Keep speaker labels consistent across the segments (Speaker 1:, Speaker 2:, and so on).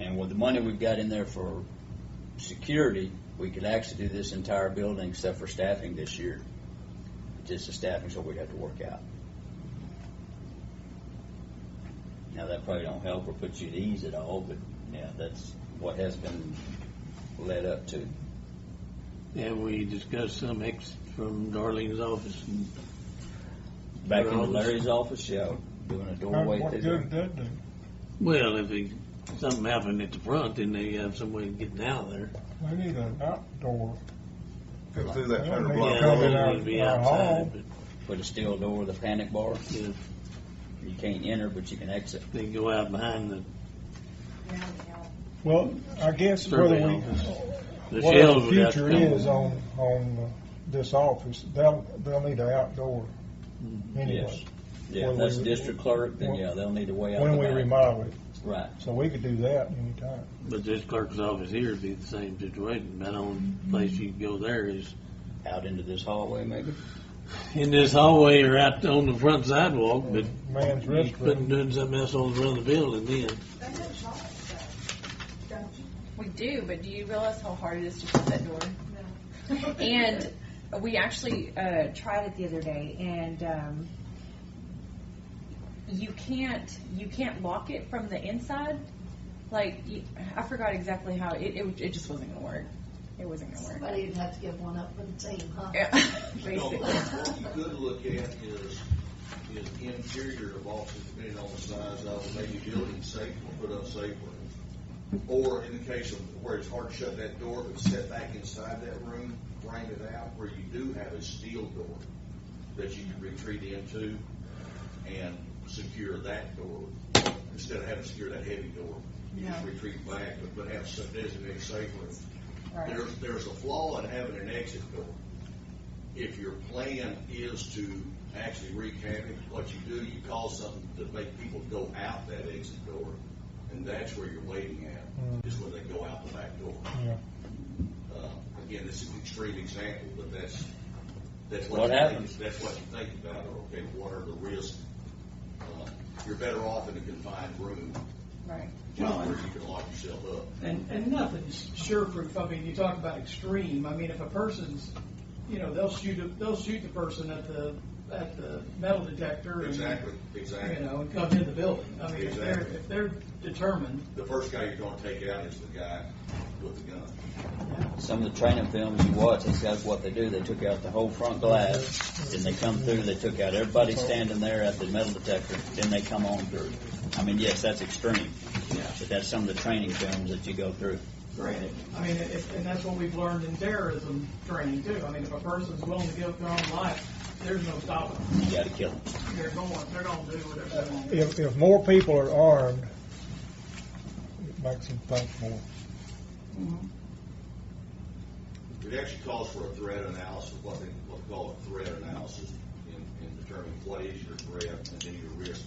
Speaker 1: And with the money we've got in there for security, we could actually do this entire building except for staffing this year. Just the staffing's what we have to work out. Now, that probably don't help or put you at ease at all, but yeah, that's what has been led up to.
Speaker 2: Have we discussed some exit from Darlene's office? and-
Speaker 1: Back into
Speaker 2: Roads.
Speaker 1: Larry's office, yeah, doing a doorway
Speaker 3: What
Speaker 1: through
Speaker 3: good
Speaker 1: there.
Speaker 3: did do?
Speaker 2: Well, if they- something happened at the front, then they have some way of getting out of there.
Speaker 3: We need an outdoor.
Speaker 4: Go through that
Speaker 3: Yeah,
Speaker 4: hundred
Speaker 3: maybe
Speaker 4: block.
Speaker 2: Yeah,
Speaker 3: coming
Speaker 2: they
Speaker 4: road.
Speaker 3: out
Speaker 2: would be
Speaker 3: our
Speaker 2: outside,
Speaker 3: hall.
Speaker 2: but
Speaker 1: Put a steel door with a panic bar.
Speaker 2: yeah,
Speaker 1: You can't enter, but you can exit.
Speaker 2: they go out behind the,
Speaker 3: Well, I guess whether
Speaker 2: Survey
Speaker 3: we,
Speaker 2: office. the
Speaker 3: what our
Speaker 2: shells would have to
Speaker 3: future
Speaker 2: come.
Speaker 3: is on, on uh, this office, they'll, they'll need an outdoor
Speaker 2: Mm-hmm.
Speaker 3: anyway.
Speaker 1: Yeah,
Speaker 3: When
Speaker 1: if that's
Speaker 3: we-
Speaker 1: district clerk, then
Speaker 3: when-
Speaker 1: yeah, they'll need a way out
Speaker 3: When
Speaker 1: the
Speaker 3: we
Speaker 1: back.
Speaker 3: remodel it,
Speaker 1: Right,
Speaker 3: so we could do that anytime.
Speaker 2: But this clerk's office here would be the same situation. About the only place you go there is
Speaker 1: out into this hallway maybe.
Speaker 2: in this hallway or out on the front sidewalk, but
Speaker 3: Man's
Speaker 2: you couldn't
Speaker 3: restroom,
Speaker 2: do something else on the front of the building then.
Speaker 5: We do, but do you realize how hard it is to shut that door? And we actually uh, tried it the other day, and um, you can't you can't lock it from the inside. Like you, I forgot exactly how it, it it just wasn't gonna work. It wasn't gonna work.
Speaker 6: Somebody'd have to give one up for the team, huh?
Speaker 5: Yeah,
Speaker 7: No,
Speaker 5: Basically,
Speaker 7: What you could look at is, is interior of offices, depending on the size of, it, maybe building safe or put up safer. Or in the case of where it's hard to shut that door, but set back inside that room, frame it out where you do have a steel door that you can retreat into and secure that door. Instead of having to secure that heavy door, you just
Speaker 5: Yeah.
Speaker 7: retreat back, but- but have some designated safe room.
Speaker 5: right.
Speaker 7: There's, there's a flaw in having an exit door. If your plan is to actually wreak havoc, what you do, you cause something to make people go out that exit door, and that's where you're waiting
Speaker 3: Mm.
Speaker 7: at, is when they go out the back door.
Speaker 3: yeah.
Speaker 7: Uh, Again, this is an extreme example, but that's, that's
Speaker 1: What
Speaker 7: what you
Speaker 1: happens?
Speaker 7: think, that's what you think about, or, okay, what are the risks? Uh, You're better off in a confined room,
Speaker 5: Right.
Speaker 7: just where you can lock yourself up.
Speaker 8: And, and nothing's sure-proof. I mean, you talk about extreme. I mean, if a person's, you know, they'll shoot, they'll shoot the person at the, at the metal detector. and,
Speaker 7: Exactly,
Speaker 8: You
Speaker 7: exactly.
Speaker 8: know, and come in the building. I mean, if they're,
Speaker 7: Exactly.
Speaker 8: if they're determined,
Speaker 7: The first guy you're gonna take out is the guy with the gun.
Speaker 1: Some of the training films you watch, that's that's what they do. They took out the whole front glass, then they come through, they took out everybody standing there at the metal detector, then they come on through. I mean, yes, that's extreme, but that's some of the training films that you go through.
Speaker 8: granted, I mean, if, and that's what we've learned in terrorism training too. I mean, if a person's willing to give their own life, there's no stopping. them.
Speaker 1: You gotta kill them.
Speaker 8: They're going, they're gonna do what they're going to do.
Speaker 3: If, if more people are armed, it makes them think more.
Speaker 7: It actually calls for a threat analysis, what they what they call a threat analysis, in, in determining what is your threat and then your risk.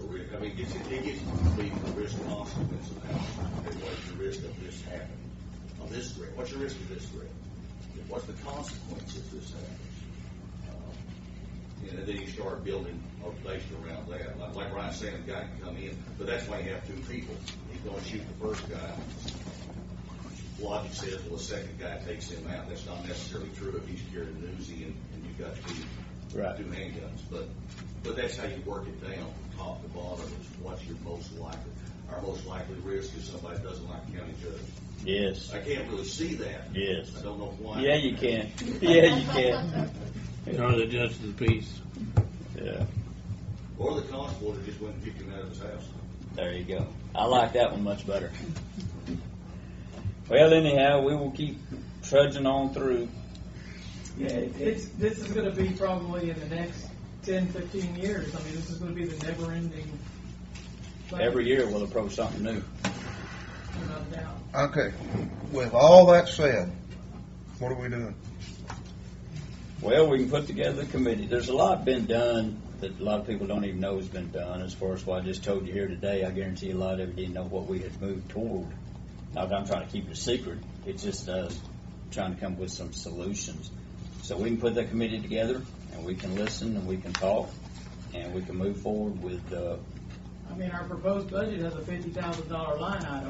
Speaker 7: Or ri- I mean, it gets, it gets to be the risk consequence analysis, and what's your risk of this happening, of this threat, what's your risk of this threat? And What's the consequence if this happens? Uh, And then you start building a based around that, like, like Ryan's saying, the guy can come in, but that's why you have two people, he's gonna shoot the first guy, logic says, well, the second guy takes him out. That's not necessarily true if he's carrying an Uzi and, and you've got two,
Speaker 1: Right.
Speaker 7: two handguns. But, but that's how you work it down, from top to bottom, is what's your most likely. Our most likely risk is somebody doesn't like county judge.
Speaker 1: Yes,
Speaker 7: I can't really see that.
Speaker 1: yes.
Speaker 7: I don't know why.
Speaker 1: Yeah, you can. Yeah, you can.
Speaker 2: Or the justice of the peace.
Speaker 1: Yeah.
Speaker 7: Or the constable that just went and kicked him out of his house.
Speaker 1: There you go. I like that one much better. Well, anyhow, we will keep trudging on through.
Speaker 8: Yeah, it's, this is gonna be probably in the next ten, fifteen years. I mean, this is gonna be the never ending.
Speaker 1: Every year we'll approach something new.
Speaker 8: Without a doubt.
Speaker 4: Okay, with all that said, what are we doing?
Speaker 1: Well, we can put together a committee. There's a lot been done that a lot of people don't even know has been done. As far as what I just told you here today, I guarantee a lot of you didn't know what we had moved toward. Not that I'm trying to keep it a secret. It's just us trying to come up with some solutions. So we can put that committee together, and we can listen, and we can talk, and we can move forward with uh,
Speaker 8: I mean, our proposed budget has a fifty thousand dollar line item.